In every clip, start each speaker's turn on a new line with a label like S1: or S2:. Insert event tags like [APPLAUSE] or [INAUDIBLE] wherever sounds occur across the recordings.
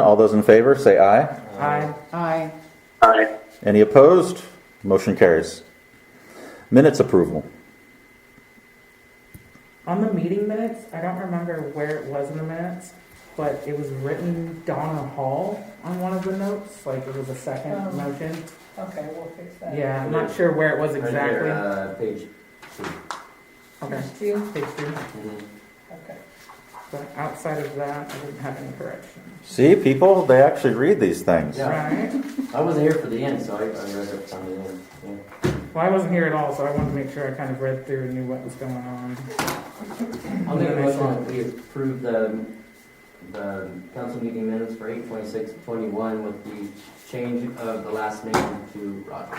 S1: All those in favor, say aye.
S2: Aye.
S3: Aye.
S4: Aye.
S1: Any opposed? Motion carries. Minutes approval.
S2: On the meeting minutes, I don't remember where it was in the minutes, but it was written Donna Hall on one of the notes, like it was a
S3: Oh.
S2: second motion.
S3: Okay, we'll fix that.
S2: Yeah, I'm not sure where it was
S4: Right here,
S2: exactly.
S4: uh, page two.
S2: Okay,
S3: Two?
S2: page two.
S4: Mhm.
S3: Okay.
S2: But outside of that, I didn't have any corrections.
S1: See, people, they actually read these things.
S4: Yeah.
S2: Right?
S4: I wasn't here for the end, so I, I read it from the end. Yeah.
S2: Well, I wasn't here at all, so I wanted to make sure I kind of read through and knew what was going on.
S4: I'll make a motion that we approve the, the council meeting minutes for eight twenty-six twenty-one with the change of the last name to Roger.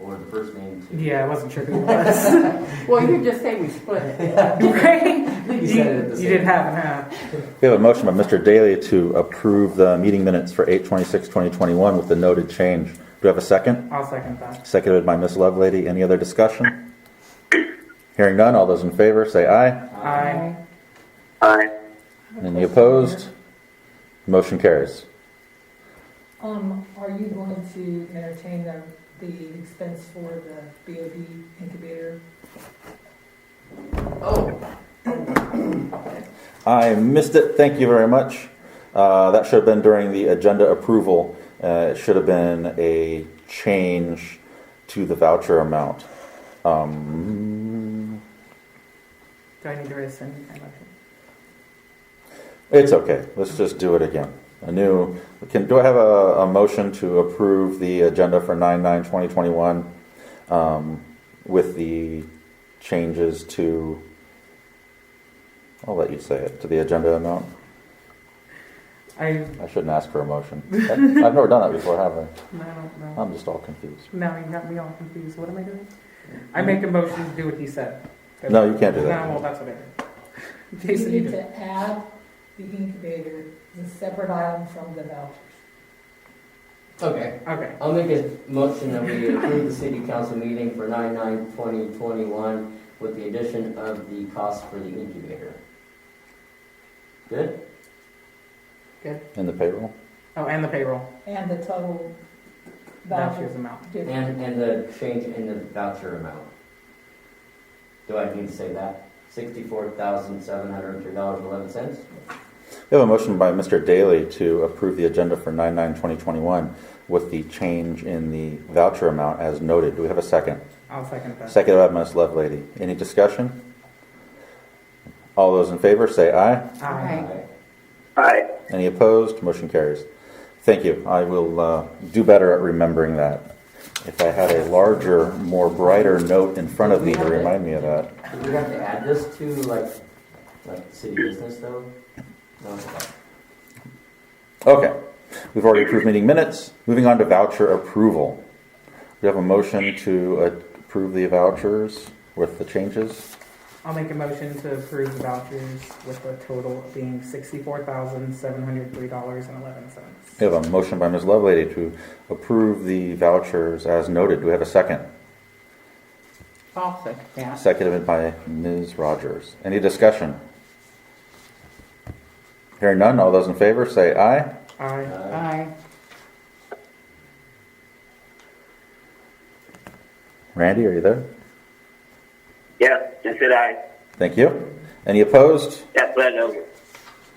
S4: Or the first name to.
S2: Yeah, I wasn't sure who it was.
S3: Well, you just say we split it. [LAUGHS]
S5: [LAUGHS]
S2: Right?
S4: [LAUGHS] You said it at the
S2: You
S4: same
S2: did half and half.
S1: We have a motion by Mr. Daly to approve the meeting minutes for 8/26/2021 with the noted change. Do we have a second?
S2: I'll second that.
S1: Seconded by Ms. Lovelady. Any other discussion? Hearing none, all those in favor, say aye.
S2: Aye.
S4: Aye.
S1: Any opposed? Motion carries.
S5: Um, are you going to entertain the, the expense for the BOB incubator?
S4: Oh,
S1: I missed it. Thank you very much. Uh, that should have been during the agenda approval. Uh, it should have been a change to the voucher amount. Um,
S2: Do I need to rescind my motion?
S1: it's okay. Let's just do it again. A new. Can do I have a, a motion to approve the agenda for nine nine twenty twenty one, um, with the changes to. I'll let you say it to the agenda amount.
S2: I,
S1: I shouldn't ask for a motion. [LAUGHS] I- I've never done that before, have I?
S2: I don't know.
S1: I'm just all confused.
S2: Now you got me all confused. What am I doing? I make a motion to do what he said.
S1: Mm-hmm. No, you can't do that.
S2: No, well, that's what I did.
S5: You
S2: Jason, you
S5: need
S2: do it.
S5: to add the incubator as a separate item from the vouchers.
S4: okay.
S2: Okay.
S4: I'll make a motion that we approve the city council meeting for nine nine twenty twenty-one with the addition of the cost for the incubator. Good?
S1: In the payroll?
S2: Oh, and the payroll.
S5: And the total
S2: Vouchers
S5: voucher.
S2: amount.
S5: difference.
S4: And, and the change in the voucher amount. Do I need to say that? Sixty-four thousand, seven hundred and three dollars, eleven cents?
S1: We have a motion by Mr. Daly to approve the agenda for 9/9/2021 with the change in the voucher amount as noted. Do we have a second?
S2: I'll second that. Um,
S1: Second by Ms. Lovelady. Any discussion? All those in favor, say aye.
S2: Aye.
S4: Aye.
S1: Any opposed? Motion carries. Thank you. I will uh, do better at remembering that. If I had a larger, more brighter note in front of me to remind me of that.
S4: Do we have to add this to like, like city business though? No?
S1: Okay, we've already approved meeting minutes. Moving on to voucher approval. We have a motion to approve the vouchers with the changes.
S2: I'll make a motion to approve the vouchers with the total being sixty-four thousand, seven hundred three dollars and eleven cents.
S1: We have a motion by Ms. Lovelady to approve the vouchers as noted. Do we have a second?
S2: I'll second that.
S1: Seconded by Ms. Rogers. Any discussion? Hearing none, all those in favor say aye.
S2: Aye.
S4: Aye.
S3: Aye.
S1: Randy, are you there?
S6: Yes, just said I.
S1: Thank you. Any opposed?
S6: That's what I know.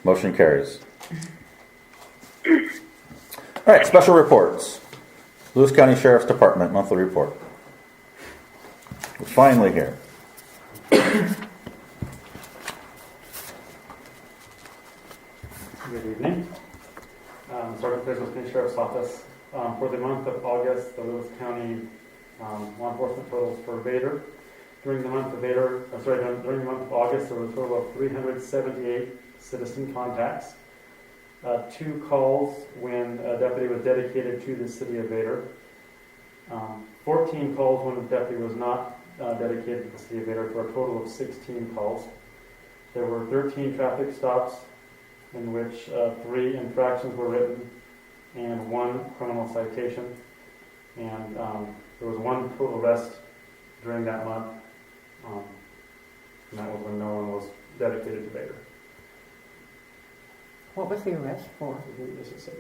S1: Motion carries. All right, special reports. Lewis County Sheriff's Department monthly report. We're finally here.
S7: Good evening. Um, Start with Business County Sheriff's Office. Um, For the month of August, the Lewis County um, law enforcement totals for Vader. During the month of Vader, I'm sorry, during- during the month of August, there were a total of 378 citizen contacts. Uh, Two calls when a deputy was dedicated to the city of Vader. Um, 14 calls when a deputy was not uh, dedicated to the city of Vader, for a total of 16 calls. There were 13 traffic stops, in which uh, three infractions were written and one criminal citation. And um, there was one total arrest during that month, um, and that was when no one was dedicated to Vader.
S8: What was the arrest for?
S2: Just a second.